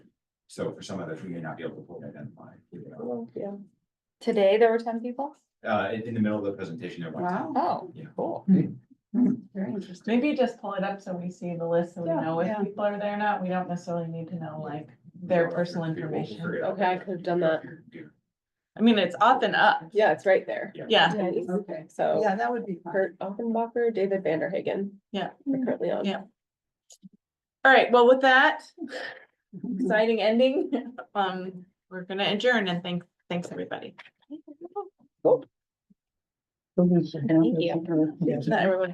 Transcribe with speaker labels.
Speaker 1: So for some others, we may not be able to fully identify. you know.
Speaker 2: Yeah.
Speaker 3: Today, there were ten people?
Speaker 1: Uh, in, in the middle of the presentation, there was.
Speaker 2: Wow, Hmm.
Speaker 3: Oh,
Speaker 1: Yeah.
Speaker 3: cool.
Speaker 2: very interesting.
Speaker 4: Maybe just pull it up so we see the list and we
Speaker 2: Yeah,
Speaker 4: know if
Speaker 2: yeah.
Speaker 4: people are there or not. We don't necessarily need to know like their personal
Speaker 1: We'll figure
Speaker 4: information.
Speaker 1: it out.
Speaker 2: Okay, I could have done that.
Speaker 1: Yeah.
Speaker 4: I mean, it's often up.
Speaker 2: Yeah, it's right there.
Speaker 4: Yeah,
Speaker 2: Nice.
Speaker 5: Okay,
Speaker 2: So
Speaker 5: yeah, that would be fun.
Speaker 2: Kurt Offenbacher, David Vanderhagen.
Speaker 4: Yeah.
Speaker 2: We're currently on.
Speaker 4: Yeah. all right. Well, with that exciting ending, um, we're gonna adjourn and thank, thanks, everybody.
Speaker 5: Thank
Speaker 3: you.
Speaker 4: Not everyone.